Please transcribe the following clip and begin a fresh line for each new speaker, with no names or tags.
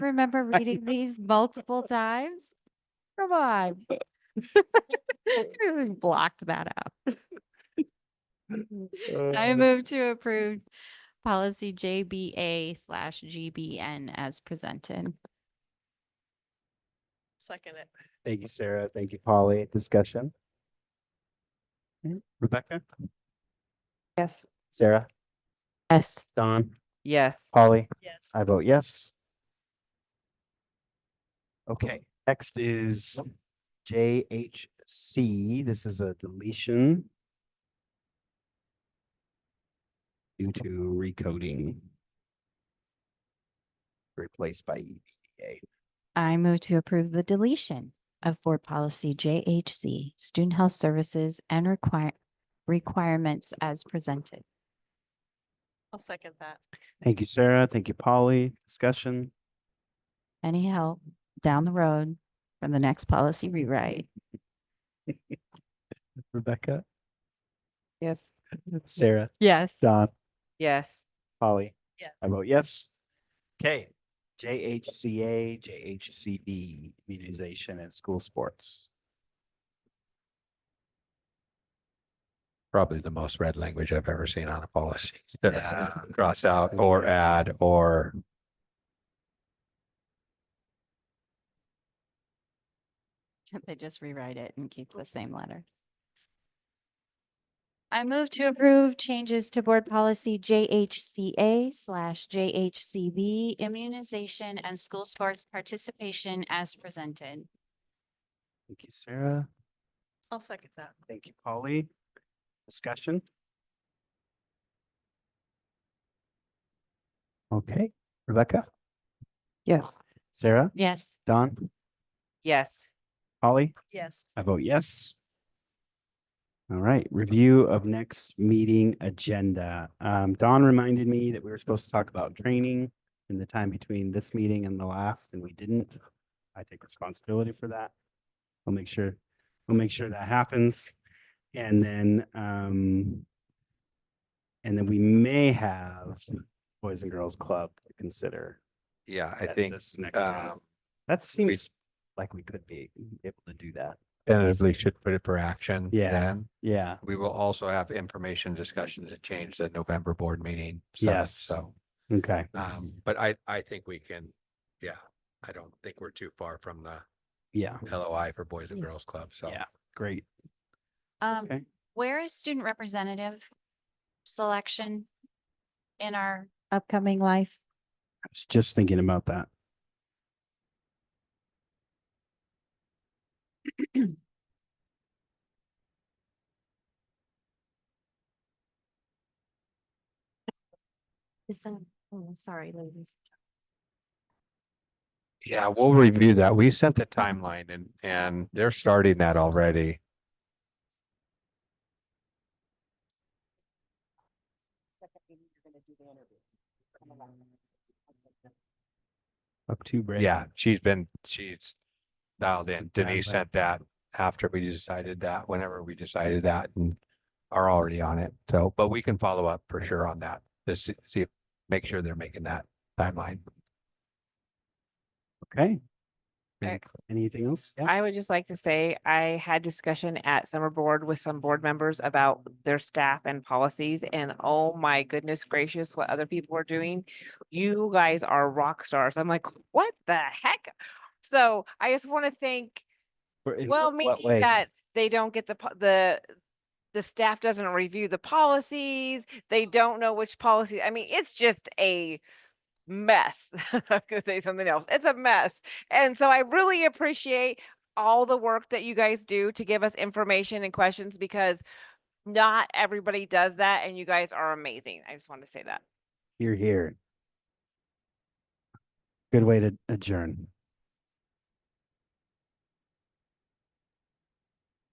remember reading these multiple times? Come on. We Blocked that out. I move to approve policy JBA slash GBN as presented.
Second it.
Thank you, Sarah. Thank you, Polly. Discussion? Mm, Rebecca,
Yes.
Sarah,
Yes.
Don,
Yes.
Polly,
Yes.
I vote yes. Okay, next is JHC. This is a deletion due to recoding replaced by E. EVA.
I move to approve the deletion of board policy JHC, student health services and require, requirements as presented.
I'll second that.
Thank you, Sarah. Thank you, Polly. Discussion?
Any help down the road for the next policy rewrite?
Rebecca,
Yes.
Sarah,
Yes.
Don,
Yes.
Polly.
Yes.
I vote yes. Okay, JHCA, JHCB, immunization and school sports.
probably the most red language I've ever seen on a policy. to Cross out or add or
They just rewrite it and keep the same letters. I move to approve changes to board policy JHCA slash JHCB immunization and school sports participation as presented.
Thank you, Sarah.
I'll second that.
Thank you, Polly. Discussion? Okay, Rebecca,
Yes.
Sarah,
Yes.
Don,
Yes.
Polly,
Yes.
I vote yes. All right, review of next meeting agenda. Um, Don reminded me that we were supposed to talk about training in the time between this meeting and the last, and we didn't. I take responsibility for that. I'll make sure, we'll make sure that happens. And then, um, and then we may have Boys and Girls Club to consider.
yeah, I
at
think
this next meeting.
um
That seems like we could be able to do that.
tentatively should put it for action.
Yeah.
Then
Yeah.
we will also have information discussions that change the November board meeting. so-
Yes.
So,
Okay.
um, but I, I think we can, yeah, I don't think we're too far from the
Yeah.
LOI for Boys and Girls Club. So
Yeah. Great.
Um,
Okay.
where is student representative selection in our upcoming life?
I was just thinking about that.
Is that, oh, sorry, ladies.
Yeah, we'll review that. We sent the timeline and, and they're starting that already.
Up to break.
Yeah, she's been, she's dialed in.
Dialed
Denise
in.
sent that after we decided that, whenever we decided that and are already on it. So, but we can follow up for sure on that. Just see- see, if make sure they're making that timeline.
Okay.
Any-
Anything else? Yeah.
I would just like to say I had discussion at summer board with some board members about their staff and policies and oh my goodness gracious, what other people are doing. You guys are rock stars. I'm like, what the heck? So I just want to thank
Or in
Well,
what-
me,
what way?
that they don't get the, po- the, the staff doesn't review the policies. They don't know which policy. I mean, it's just a mess. I was gonna say something else. It's a mess. And so I really appreciate all the work that you guys do to give us information and questions because not everybody does that and you guys are amazing. I just wanted to say that.
You're here. Good way to adjourn.